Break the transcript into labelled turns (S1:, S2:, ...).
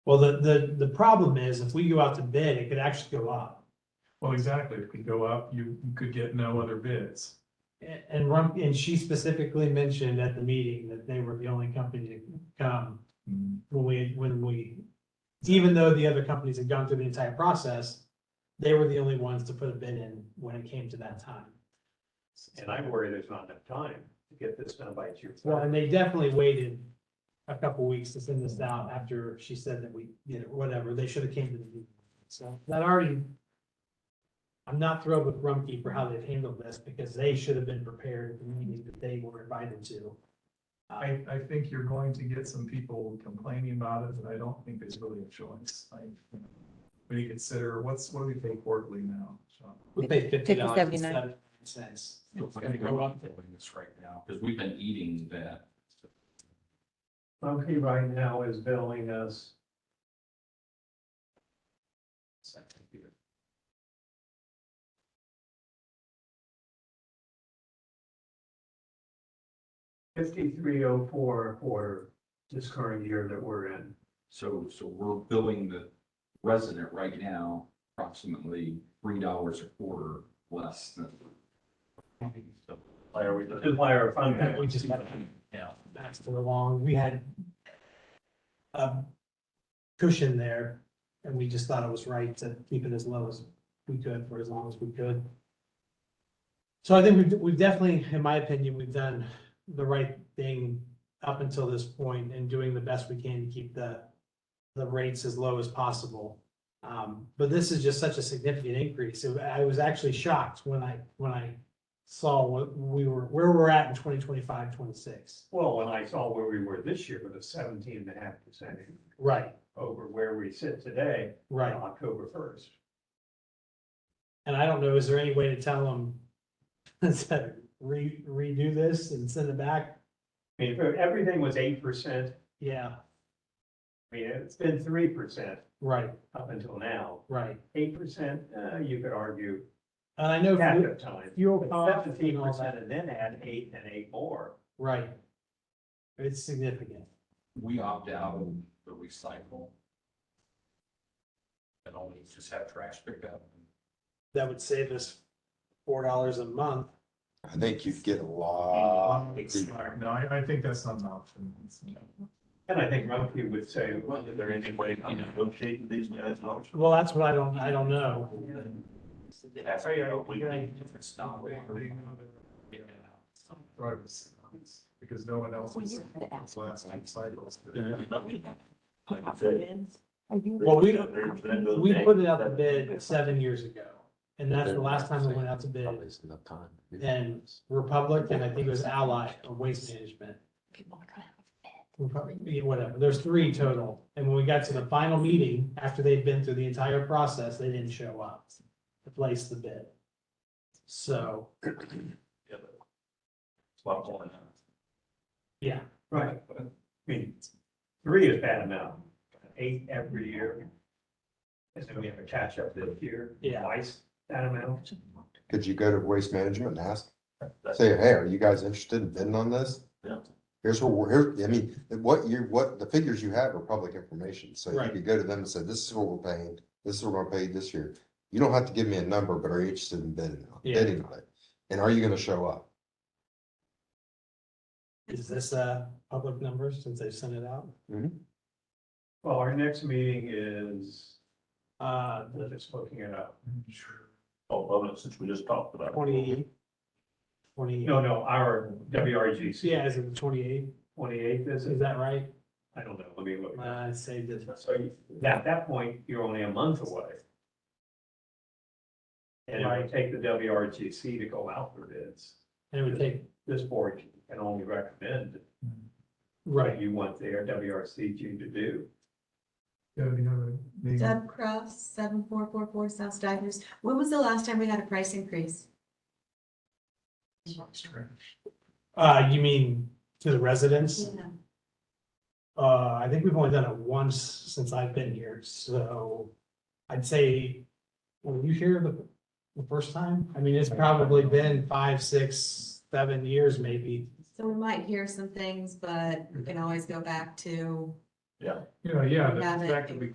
S1: Well, the, the, the problem is if we go out to bid, it could actually go up.
S2: Well, exactly. If we go up, you you could get no other bids.
S1: A- And Rump, and she specifically mentioned at the meeting that they were the only company to come when we, when we, even though the other companies had gone through the entire process, they were the only ones to put a bid in when it came to that time.
S3: And I worry there's not enough time to get this done by June.
S1: Well, and they definitely waited a couple weeks to send this out after she said that we, you know, whatever, they should have came to the meeting. So that already. I'm not thrilled with Rumkey for how they've handled this because they should have been prepared at the meeting that they were invited to. Uh,
S2: I I think you're going to get some people complaining about it, but I don't think there's really a choice. Like, when you consider what's, what do we pay quarterly now? Sean?
S1: We paid fifty dollars and
S4: 79.
S1: seventy cents.
S5: It's gonna go up doing this right now, because we've been eating that.
S3: Monkey right now is billing us fifty-three oh four a quarter this current year that we're in.
S5: So, so we're billing the resident right now approximately three dollars a quarter less than.
S3: Why are we? Why are fund
S1: Yeah, We just had, yeah, that's for long, we had a cushion there, and we just thought it was right to keep it as low as we could for as long as we could. So I think we've, we've definitely, in my opinion, we've done the right thing up until this point and doing the best we can to keep the, the rates as low as possible. Um, but this is just such a significant increase. So I was actually shocked when I, when I saw what we were, where we're at in 2025, 26.
S3: Well, when I saw where we were this year with a seventeen and a half percent
S1: Right,
S3: over where we sit today on
S1: right.
S3: October first.
S1: And I don't know, is there any way to tell them, instead, re, redo this and send it back?
S3: I mean, if everything was eight percent,
S1: Yeah,
S3: I mean, it's been three percent
S1: right,
S3: up until now.
S1: right.
S3: Eight percent, uh, you could argue
S1: And I know
S3: half
S1: fu-
S3: of time.
S1: fuel costs
S3: Seventeen
S1: and all
S3: percent
S1: that,
S3: and then add eight and eight more.
S1: right. It's significant.
S5: We opt out of the recycle. And only just have trash picked up.
S1: That would save us four dollars a month.
S6: I think you'd get a lot. of people.
S2: No, I I think that's not an option. It's-
S3: And I think Rumpke would say, well,
S7: Is there any way to negotiate these guys' options?
S1: Well, that's what I don't, I don't know.
S7: That's how you- we-
S5: It's not
S2: They-
S5: where-
S2: they know they're- drivers, Because no one else is last two cycles.
S1: Well, we don't-
S7: don't,
S1: We put it out to bid seven years ago, and that's the last time it went out to bid.
S6: Probably isn't enough time.
S1: And Republic, and I think it was Ally or Waste Management. Republic, yeah, Whatever, there's three total. And when we got to the final meeting, after they'd been through the entire process, they didn't show up to place the bid. So, yeah,
S3: right, I mean, three is bad enough, eight every year. And then we have a catch up this year,
S1: yeah,
S3: twice that amount.
S6: Could you go to waste management and ask, say, hey, are you guys interested in bidding on this?
S7: Yeah.
S6: Here's what we're, here, I mean, what you, what, the figures you have are public information, so you
S1: Right.
S6: could go to them and say, this is what we're paying, this is what we're paying this year. You don't have to give me a number, but are you interested in bidding, on-
S1: Yeah.
S6: bidding on it? And are you gonna show up?
S1: is this, uh, public numbers since they sent it out?
S3: Well, our next meeting is,
S1: Uh,
S3: I'm just looking it up.
S7: Oh, love it, since we just talked about. it.
S1: twenty, twenty,
S3: No, no, our WRGC.
S1: yeah, is it the twenty-eight?
S3: Twenty-eighth, is
S1: Is
S3: it?
S1: that right?
S3: I don't know, let me look.
S1: I saved it.
S3: So you- at that point, you're only a month away. And it
S1: Right.
S3: might take the WRGC to go out for bids.
S1: And it would take,
S3: This board can only recommend
S1: right,
S3: what you want their WRCG to do.
S2: Yeah, we have a meeting.
S8: Deb Cross, seven four four four South Stivers. When was the last time we had a price increase?
S1: uh, you mean to the residents?
S8: Yeah.
S1: Uh, I think we've only done it once since I've been here, so I'd say, were you here the, the first time? I mean, it's probably been five, six, seven years maybe.
S8: So we might hear some things, but we can always go back to
S2: You know, yeah,
S8: Have
S2: the
S8: it.
S2: fact that we